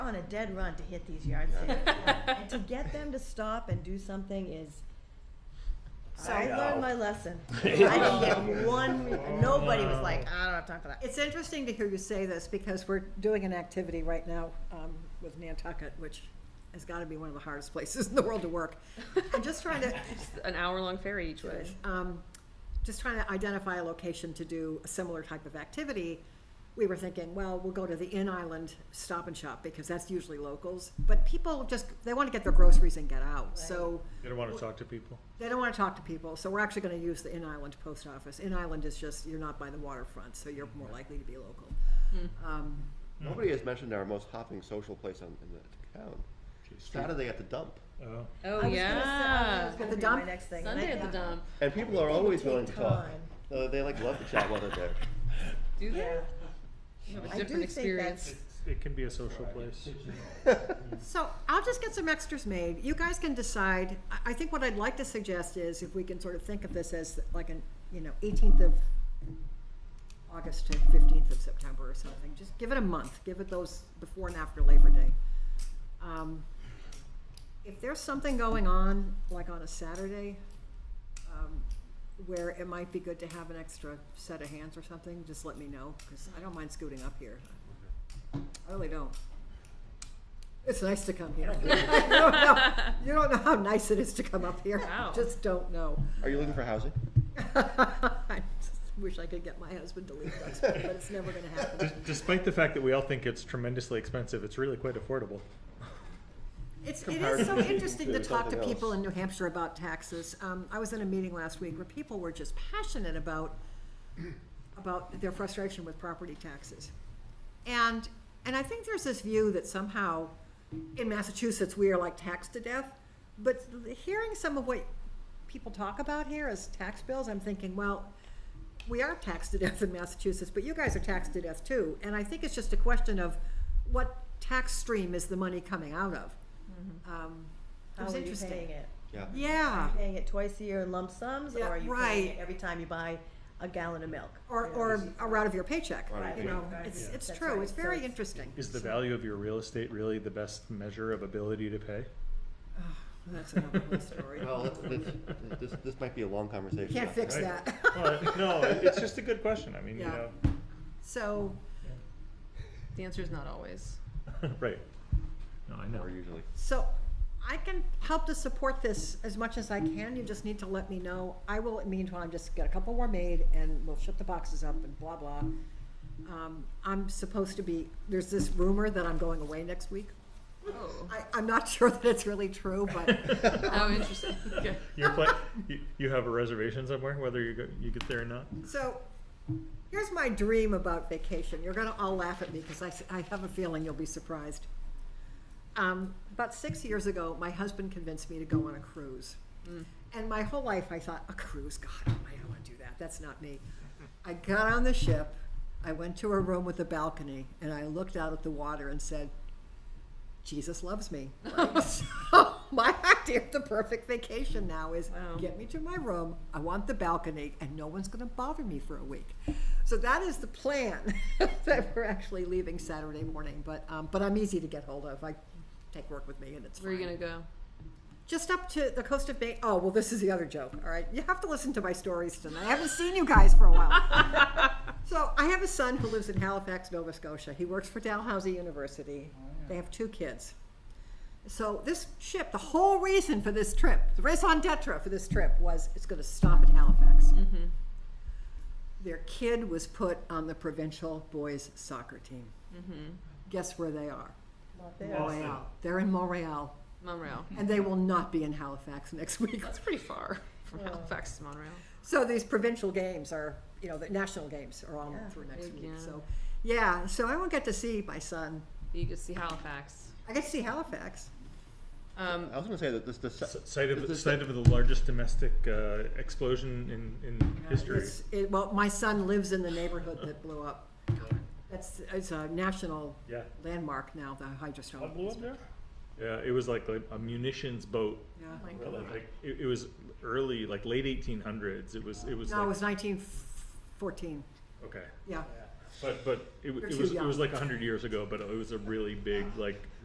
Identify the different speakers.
Speaker 1: on a dead run to hit these yard sales. And to get them to stop and do something is,
Speaker 2: So-
Speaker 1: I
Speaker 2: I
Speaker 1: learned
Speaker 3: know.
Speaker 1: my lesson. I didn't get one, re- nobody was like, I don't have time for that.
Speaker 2: It's interesting to hear you say this because we're doing an activity right now um, with Nantucket, which has got to be one of the hardest places in the world to work. I'm just trying to,
Speaker 4: An hour-long ferry each way.
Speaker 2: um, just trying to identify a location to do a similar type of activity. We were thinking, well, we'll go to the in island stop and shop because that's usually locals. But people just, they want to get their groceries and get out. So
Speaker 5: You don't wanna talk to people?
Speaker 2: they don't want to talk to people. So we're actually going to use the in island post office. In island is just, you're not by the waterfront, so you're more likely to be local. Um,
Speaker 5: Mm.
Speaker 3: Nobody has mentioned our most hopping social place on, in the town. Saturday at the dump.
Speaker 5: Oh,
Speaker 1: I
Speaker 4: Oh,
Speaker 1: was gonna say- I
Speaker 4: yeah.
Speaker 1: was gonna
Speaker 2: At the
Speaker 1: be my
Speaker 2: dump?
Speaker 1: next thing. and I
Speaker 4: Sunday at the
Speaker 1: think-
Speaker 4: dump.
Speaker 3: And people are
Speaker 1: They would
Speaker 3: always
Speaker 1: take
Speaker 3: willing to talk.
Speaker 1: time.
Speaker 3: Uh, they like love to chat while they're there.
Speaker 4: Do they?
Speaker 1: Yeah,
Speaker 4: You have
Speaker 1: I
Speaker 4: a
Speaker 1: do
Speaker 4: different
Speaker 1: think
Speaker 4: experience.
Speaker 1: that's-
Speaker 5: it can be a social place.
Speaker 2: So I'll just get some extras made. You guys can decide. I, I think what I'd like to suggest is if we can sort of think of this as like an, you know, eighteenth of August to fifteenth of September or something. Just give it a month. Give it those before and after Labor Day. Um, if there's something going on, like on a Saturday, um, where it might be good to have an extra set of hands or something, just let me know, because I don't mind scooting up here. I really don't. It's nice to come here. You don't know- you don't know how nice it is to come up here.
Speaker 4: Wow.
Speaker 2: Just don't know.
Speaker 3: Are you looking for housing?
Speaker 2: I just wish I could get my husband to leave us, but it's never gonna happen.
Speaker 5: Despite the fact that we all think it's tremendously expensive, it's really quite affordable.
Speaker 2: It's, it is so
Speaker 3: Comparatively
Speaker 2: interesting to
Speaker 3: to
Speaker 2: talk to
Speaker 3: something
Speaker 2: people
Speaker 3: else.
Speaker 2: in New Hampshire about taxes. Um, I was in a meeting last week where people were just passionate about, about their frustration with property taxes. And, and I think there's this view that somehow in Massachusetts, we are like taxed to death. But hearing some of what people talk about here as tax bills, I'm thinking, well, we are taxed to death in Massachusetts, but you guys are taxed to death too. And I think it's just a question of what tax stream is the money coming out of? Um,
Speaker 1: Mm-hmm.
Speaker 2: It
Speaker 1: How
Speaker 2: was
Speaker 1: are you
Speaker 2: interesting.
Speaker 1: paying it?
Speaker 3: Yeah.
Speaker 1: Are
Speaker 2: Yeah,
Speaker 1: you paying it twice a year in lump sums, or
Speaker 2: Yeah,
Speaker 1: are you
Speaker 2: right.
Speaker 1: paying it every time you buy a gallon of milk?
Speaker 2: or,
Speaker 1: You know,
Speaker 2: or
Speaker 1: it's-
Speaker 2: a route of your paycheck,
Speaker 3: Right.
Speaker 2: you know,
Speaker 1: Right.
Speaker 2: it's,
Speaker 5: Yeah.
Speaker 2: it's
Speaker 1: That's
Speaker 2: true,
Speaker 1: right.
Speaker 2: it's
Speaker 1: So
Speaker 2: very
Speaker 1: it's-
Speaker 2: interesting.
Speaker 5: Is the value of your real estate really the best measure of ability to pay?
Speaker 2: That's another whole story.
Speaker 3: Well, let's- let's- this, this might be a long conversation.
Speaker 2: Can't fix
Speaker 5: Right.
Speaker 2: that.
Speaker 5: no, it's just a good question, I mean,
Speaker 2: you
Speaker 5: you
Speaker 2: Yeah.
Speaker 5: know,
Speaker 2: So,
Speaker 4: The answer is not always.
Speaker 5: right. No, I know.
Speaker 3: Or usually.
Speaker 2: so I can help to support this as much as I can, you just need to let me know. I will, meanwhile, just get a couple more made and we'll ship the boxes up and blah, blah. Um, I'm supposed to be, there's this rumor that I'm going away next week.
Speaker 4: Oh,
Speaker 2: I, I'm not sure that it's really true, but
Speaker 4: how Oh, interesting. Okay.
Speaker 5: You're pla- you, you have a reservation somewhere, whether you go, you get there or not?
Speaker 2: So, here's my dream about vacation. You're gonna all laugh at me because I, s- I have a feeling you'll be surprised. Um, about six years ago, my husband convinced me to go on a cruise. And my whole life, I thought, a cruise, God, I don't want to do that. That's not me. I got on the ship, I went to a room with a balcony, and I looked out at the water and said, Jesus loves me. Right? so my idea of the perfect vacation now is
Speaker 4: Wow.
Speaker 2: get me to my room. I want the balcony, and no one's going to bother me for a week. So that is the plan that we're actually leaving Saturday morning. But um, but I'm easy to get hold of. I take work with me, and it's
Speaker 4: Where are
Speaker 2: fine.
Speaker 4: you gonna go?
Speaker 2: Just up to the coast of Bay. Oh well, this is the other joke. All right, you have to listen to my stories tonight. I haven't seen you guys for a while. so I have a son who lives in Halifax, Nova Scotia. He works for Dalhousie University. They have two kids. So this ship, the whole reason for this trip, the raison d'etre for this trip was it's going to stop at Halifax. Their kid was put on the provincial boys soccer team. Guess where they are?
Speaker 1: not there.
Speaker 2: Montreal. They're in Montreal,
Speaker 4: Montreal.
Speaker 2: and they will not be in Halifax next week.
Speaker 4: That's pretty far from Halifax to Montreal.
Speaker 2: So these provincial games are, you know, the national games are on
Speaker 1: Yeah.
Speaker 2: through next
Speaker 4: Big,
Speaker 2: week.
Speaker 4: yeah.
Speaker 2: So, yeah, so I won't get to see my son.
Speaker 4: You can see Halifax.
Speaker 2: I get to see Halifax.
Speaker 4: Um,
Speaker 3: I was gonna say that this, the,
Speaker 5: S-
Speaker 3: se-
Speaker 5: Site
Speaker 3: this-
Speaker 5: of,
Speaker 3: this-
Speaker 5: site of the largest domestic, uh, explosion in, in history.
Speaker 2: It's, it, well, my son lives in the neighborhood that blew up. That's it's a national
Speaker 5: Yeah.
Speaker 2: landmark now. The hydrostone.
Speaker 5: Yeah, it was like a, a munitions boat.
Speaker 2: Yeah.
Speaker 4: Oh my
Speaker 5: uh, Like, it, it was early, like late 1800s. It was, it was
Speaker 2: No, it
Speaker 5: like,
Speaker 2: was 1914.
Speaker 5: okay.
Speaker 2: Yeah.
Speaker 5: But, but it, w-
Speaker 2: You're
Speaker 5: it
Speaker 2: too
Speaker 5: was, it was
Speaker 2: young.
Speaker 5: like 100 years ago, but it was a really big, like,